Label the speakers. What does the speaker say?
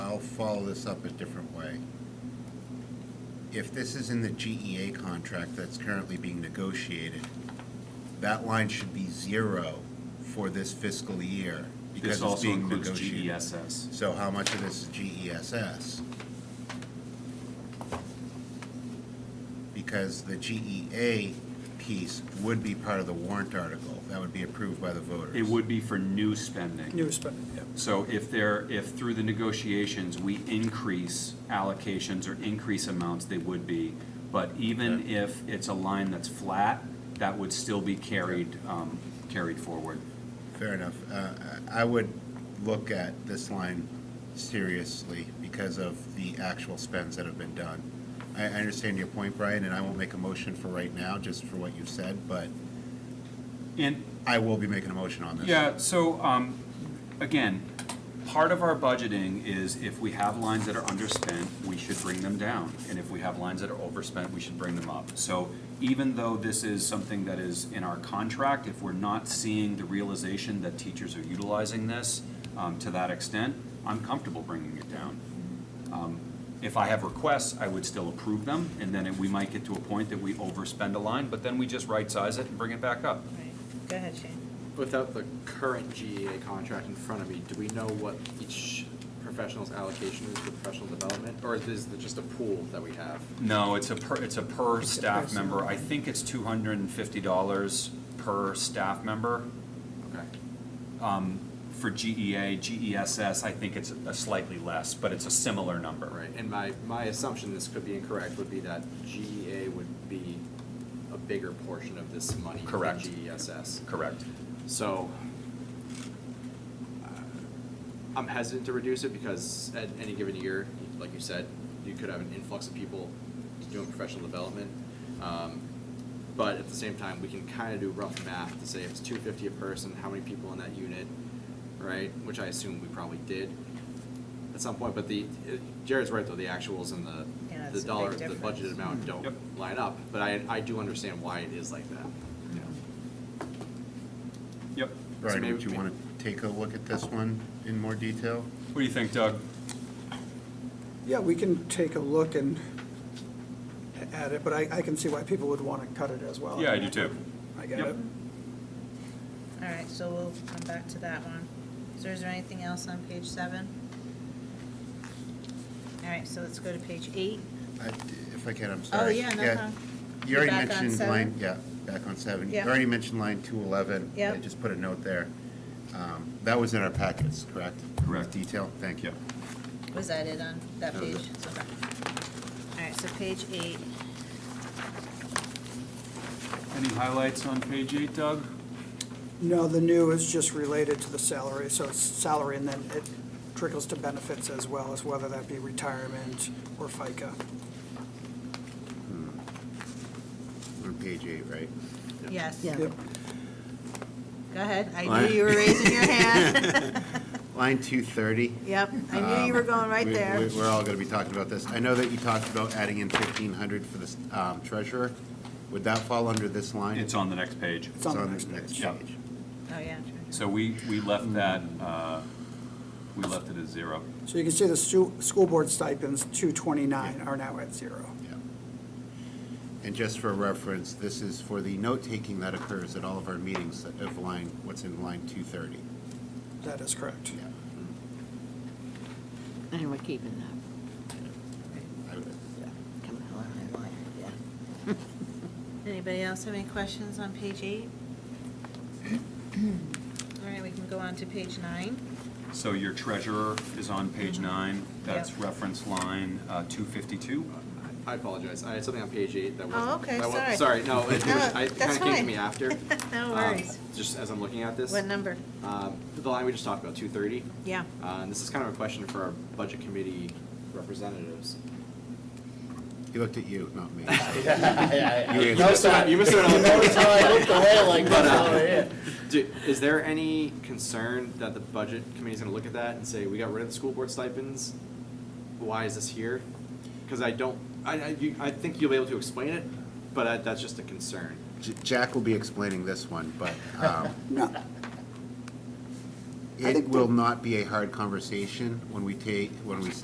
Speaker 1: follow this up a different way. If this is in the GEA contract that's currently being negotiated, that line should be zero for this fiscal year because
Speaker 2: This
Speaker 1: it's
Speaker 2: also
Speaker 1: being
Speaker 2: includes E
Speaker 1: negotiated.
Speaker 2: GESS.
Speaker 1: So how much of this is E GESS? Because the GEA piece would be part of the warrant article. That would be approved by the voters.
Speaker 2: It would be for new spending.
Speaker 3: New spending, yeah.
Speaker 2: So if there, if through the negotiations, we increase allocations or increase amounts, they would be. But even
Speaker 1: Okay.
Speaker 2: if it's a line that's flat, that would still be carried, um, carried forward.
Speaker 1: Fair enough. Uh, I I would look at this line seriously because of the actual spends that have been done. I I understand your point, Brian, and I won't make a motion for right now, just for what you've said, but
Speaker 2: And,
Speaker 1: I will be making a motion on this.
Speaker 2: Yeah, so, um, again, part of our budgeting is if we have lines that are underspent, we should bring them down. And if we have lines that are overspent, we should bring them up. So even though this is something that is in our contract, if we're not seeing the realization that teachers are utilizing this, um, to that extent, I'm comfortable bringing it down. Um, If I have requests, I would still approve them, and then we might get to a point that we overspend a line, but then we just right-size it and bring it back up.
Speaker 4: Right, go ahead, Shane.
Speaker 5: Without the current GEA contract in front of me, do we know what each professional's allocation is for professional development? Or is this just a pool that we have?
Speaker 2: No, it's a per, it's a per
Speaker 3: It's a
Speaker 2: staff
Speaker 3: person.
Speaker 2: member. I think it's two hundred and fifty dollars per staff member.
Speaker 5: Okay.
Speaker 2: Um, for GEA, GESS, E I think it's a slightly less, but it's a similar number.
Speaker 5: All right, and my, my assumption, this could be incorrect, would be that GEA would be a bigger portion of this money than E
Speaker 2: Correct.
Speaker 5: GESS.
Speaker 2: Correct.
Speaker 5: So uh, I'm hesitant to reduce it because at any given year, like you said, you could have an influx of people doing professional development. Um, But at the same time, we can kind of do rough math to say if it's two fifty a person, how many people in that unit, right? Which I assume we probably did at some point, but the, Jared's right though, the actuals and the,
Speaker 4: Yeah, it's
Speaker 5: the
Speaker 4: a big
Speaker 5: dollar, the
Speaker 4: difference.
Speaker 5: budgeted amount don't
Speaker 2: Yep.
Speaker 5: line up. But I, I do understand why it is like that.
Speaker 2: Yep.
Speaker 1: Brian,
Speaker 5: maybe-
Speaker 1: would you want to take a look at this one in more detail?
Speaker 2: What do you think, Doug?
Speaker 3: Yeah, we can take a look and at it, but I, I can see why people would want to cut it as well.
Speaker 2: Yeah, I do too.
Speaker 3: I get
Speaker 2: Yep.
Speaker 3: it.
Speaker 4: All right, so we'll come back to that one. So is there anything else on page seven? All right, so let's go to page eight.
Speaker 1: I- If I can, I'm sorry.
Speaker 4: Oh, yeah, no problem.
Speaker 1: You already
Speaker 4: Back on
Speaker 1: mentioned
Speaker 4: seven?
Speaker 1: line, yeah, back on seven. You
Speaker 4: Yeah.
Speaker 1: already mentioned line 211. I
Speaker 4: Yep.
Speaker 1: just put a note there. Um, That was in our packets, correct?
Speaker 2: Correct.
Speaker 1: Detail, thank you.
Speaker 4: Was that it on
Speaker 1: That
Speaker 4: that page?
Speaker 1: was it.
Speaker 4: It's okay. All right, so page eight.
Speaker 2: Any highlights on page eight, Doug?
Speaker 3: No, the new is just related to the salary, so it's salary and then it trickles to benefits as well as whether that be retirement or FICA.
Speaker 1: On page eight, right?
Speaker 4: Yes.
Speaker 3: Yep.
Speaker 4: Go ahead. I knew you were raising your hand.
Speaker 1: Line 230.
Speaker 4: Yep, I knew you were going right
Speaker 1: We-
Speaker 4: there.
Speaker 1: we- We're all going to be talking about this. I know that you talked about adding in 1,500 for the um, treasurer. Would that fall under this line?
Speaker 2: It's on the next page.
Speaker 3: It's on the next page.
Speaker 2: Yeah.
Speaker 1: page.
Speaker 4: Oh, yeah.
Speaker 2: So we, we
Speaker 3: Hmm.
Speaker 2: left that, uh, we left it as zero.
Speaker 3: So you can see the stu- school board stipends, 229, are now at zero.
Speaker 1: Yeah. And just for reference, this is for the note-taking that occurs at all of our meetings of line, what's in line 230.
Speaker 3: That is correct.
Speaker 1: Yeah.
Speaker 6: And we're keeping that.
Speaker 1: I would-
Speaker 6: Come on, yeah.
Speaker 4: Anybody else have any questions on page eight? All right, we can go on to page nine.
Speaker 2: So your treasurer is on page nine. That's
Speaker 4: Yep.
Speaker 2: reference line uh, two fifty-two.
Speaker 5: I apologize. I had something on page eight that wasn't.
Speaker 4: Oh, okay,
Speaker 5: that wa-
Speaker 4: sorry.
Speaker 5: Sorry, no, it
Speaker 4: No,
Speaker 5: was- I- it
Speaker 4: that's
Speaker 5: kinda came to
Speaker 4: fine.
Speaker 5: me after.
Speaker 4: No
Speaker 5: um,
Speaker 4: worries.
Speaker 5: Just as I'm looking at this.
Speaker 4: What number?
Speaker 5: Um, The line we just talked about, two thirty.
Speaker 4: Yeah.
Speaker 5: Uh, and this is kind of a question for our budget committee representatives.
Speaker 1: He looked at you, not me.
Speaker 5: You missed out, you missed out on the
Speaker 7: Notice how I looked away like
Speaker 5: But,
Speaker 7: this
Speaker 5: uh,
Speaker 7: over here.
Speaker 5: Do, is there any concern that the budget committee's gonna look at that and say, we got rid of the school board stipends? Why is this here? Cause I don't, I, I, you, I think you'll be able to explain it, but I, that's just a concern.
Speaker 1: J- Jack will be explaining this one, but um,
Speaker 3: No, I
Speaker 1: it
Speaker 3: think
Speaker 1: will
Speaker 3: the-
Speaker 1: not be a hard conversation when we take, when we say